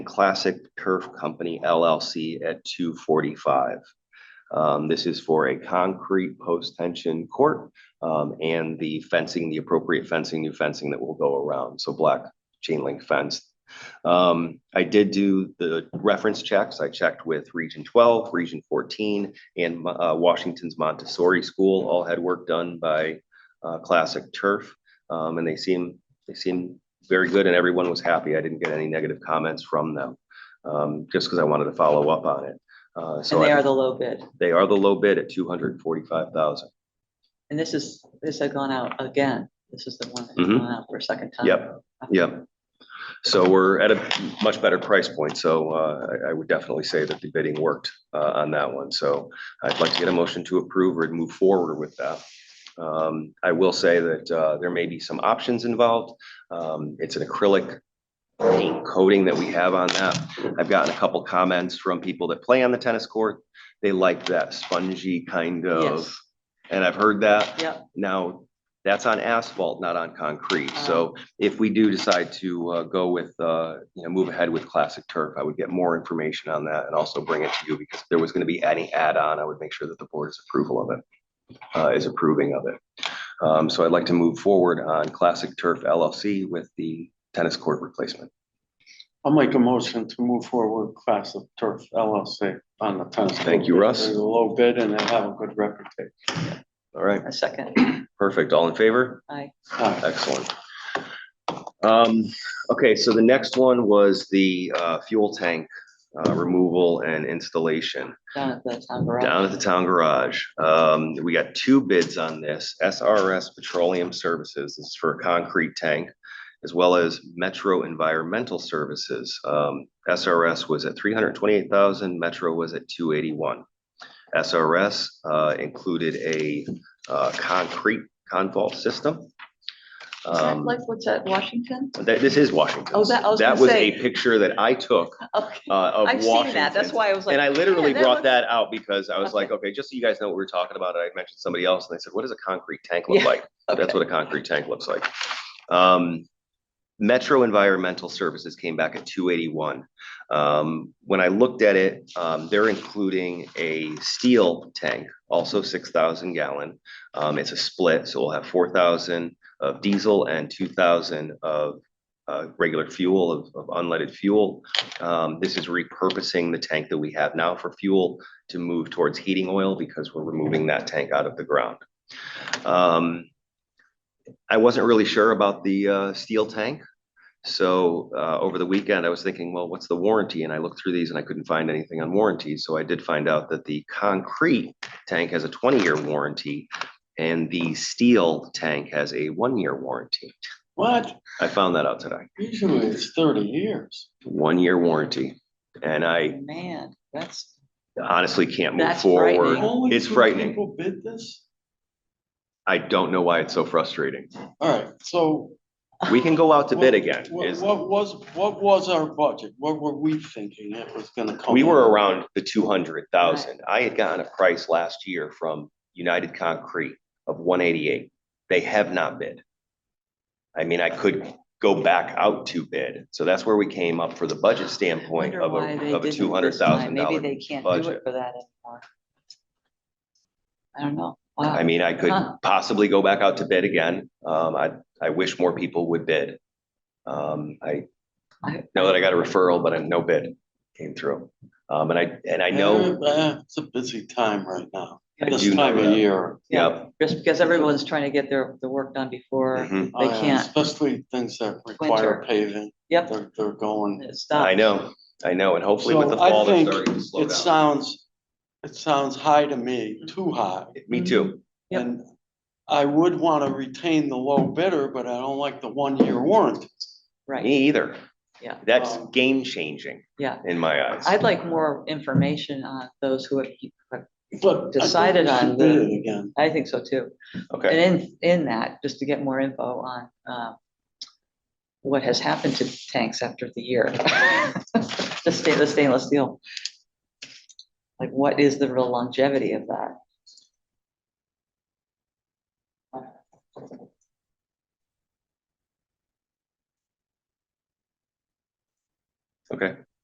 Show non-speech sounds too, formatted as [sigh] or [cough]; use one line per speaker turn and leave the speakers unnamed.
Classic Turf Company LLC at two forty-five. Um, this is for a concrete post-tension court, um, and the fencing, the appropriate fencing, new fencing that will go around, so black chain link fence. Um, I did do the reference checks. I checked with Region twelve, Region fourteen, and, uh, Washington's Montessori School, all had work done by, uh, Classic Turf. Um, and they seem, they seem very good and everyone was happy. I didn't get any negative comments from them. Um, just because I wanted to follow up on it. Uh, so
And they
I-
are the low bid.
they are the low bid at two hundred and forty-five thousand.
And this is, this had gone out again. This is the one that's
Mhm.
gone out for a second time.
Yep, yep. So we're at a much better price point, so uh, I, I would definitely say that the bidding worked uh, on that one. So I'd like to get a motion to approve or move forward with that. Um, I will say that uh, there may be some options involved. Um, It's an acrylic paint coating that we have on that. I've gotten a couple comments from people that play on the tennis court. They like that spongy kind of,
Yes.
and I've heard that.
Yep.
Now, that's on asphalt, not on concrete. So if we do decide to uh, go with, uh, you know, move ahead with classic turf, I would get more information on that and also bring it to you because if there was going to be any add-on, I would make sure that the board's approval of it, uh, is approving of it. Um, So I'd like to move forward on Classic Turf LLC with the tennis court replacement.
I'll make a motion to move forward with Class of Turf LLC on the tennis. court.
Thank you, Russ.
They're a low bid and they have a good reputation.
All right,
A second.
perfect. All in favor?
I,
Aye.
Excellent. Um, okay, so the next one was the, uh, fuel tank, uh, removal and installation
down at the town garage.
down at the town garage. Um, we got two bids on this, SRS Petroleum Services, this is for a concrete tank, as well as Metro Environmental Services. Um, SRS was at three hundred twenty-eight thousand, Metro was at two eighty-one. SRS, uh, included a, uh, concrete convolt system.
Is that
Um,
like what's at Washington? [laughs]
that, this is Washington.
Oh, that- I was
That
gonna
was
say-
a picture that I took
Okay.
uh, of
I've seen that. That's
Washington.
why I was like.
And I literally
"Yeah,
brought
looks-"
that out because I was like, okay, just so you guys know what we're talking about, and I mentioned somebody else, and they said, what does a concrete tank look
Yeah,
like? That's what a concrete tank looks like. Um, Metro Environmental Services came back at two eighty-one. Um, when I looked at it, um, they're including a steel tank, also six thousand gallon. Um, it's a split, so we'll have four thousand of diesel and two thousand of, uh, regular fuel, of, of unleaded fuel. Um, this is repurposing the tank that we have now for fuel to move towards heating oil because we're removing that tank out of the ground. Um, I wasn't really sure about the uh, steel tank. So uh, over the weekend, I was thinking, well, what's the warranty? And I looked through these and I couldn't find anything on warranties. So I did find out that the concrete tank has a 20-year warranty and the steel tank has a one-year warranty.
What?
I found that out today.
Usually it's thirty years.
One-year warranty. And I
Man, that's,
honestly can't move
That's frightening.
forward.
Only
It's
two
frightening.
People bid this?
I don't know why it's so frustrating.
All right, so.
We can go out to bid again.
What,
is-
what was, what was our budget? What were we thinking it was gonna come?
We
in?
were around the two hundred thousand. I had gotten a price last year from United Concrete of one eighty-eight. They have not bid. I mean, I could go back out to bid. So that's where we came up for the budget standpoint
wonder
of
why they
a, of a
didn't
two hundred
this time.
thousand
Maybe
dollar.
they can't do it
budget.
for that anymore. I don't know. Wow.
I mean, I could
Huh.
possibly go back out to bid again. Um, I, I wish more people would bid. Um, I
I-
know that I got a referral, but I no bid came through. Um, and I, and I know,
Eh, eh, It's a busy time right now,
I
this
do know
time of
that.
year.
yeah.
Just because everyone's trying to get their, the work done before,
mhm.
Oh, yeah,
can't.
Especially things that require
Winter.
paving,
yep,
they're, they're going.
it's
Mm-hmm. I
done.
know, I know, and hopefully with the
So I
fall, they're
think
starting to slow
It
down.
sounds, it sounds high to me, too high.
Me too.
Yep.
And I would want to retain the low bidder, but I don't like the one-year warranty. Mm-hmm.
Right.
Me either.
Yeah.
That's
Um,
game changing.
Yeah.
In my eyes.
I'd like more information on those who have,
But. I think we
Decided on
should bid
the-
it Again,
I think so too. And
Okay,
in, in that, just to get more info on, um, what has happened to tanks after the year. [laughs] The stainless, stainless steel. Like, what is the real longevity of that?
okay.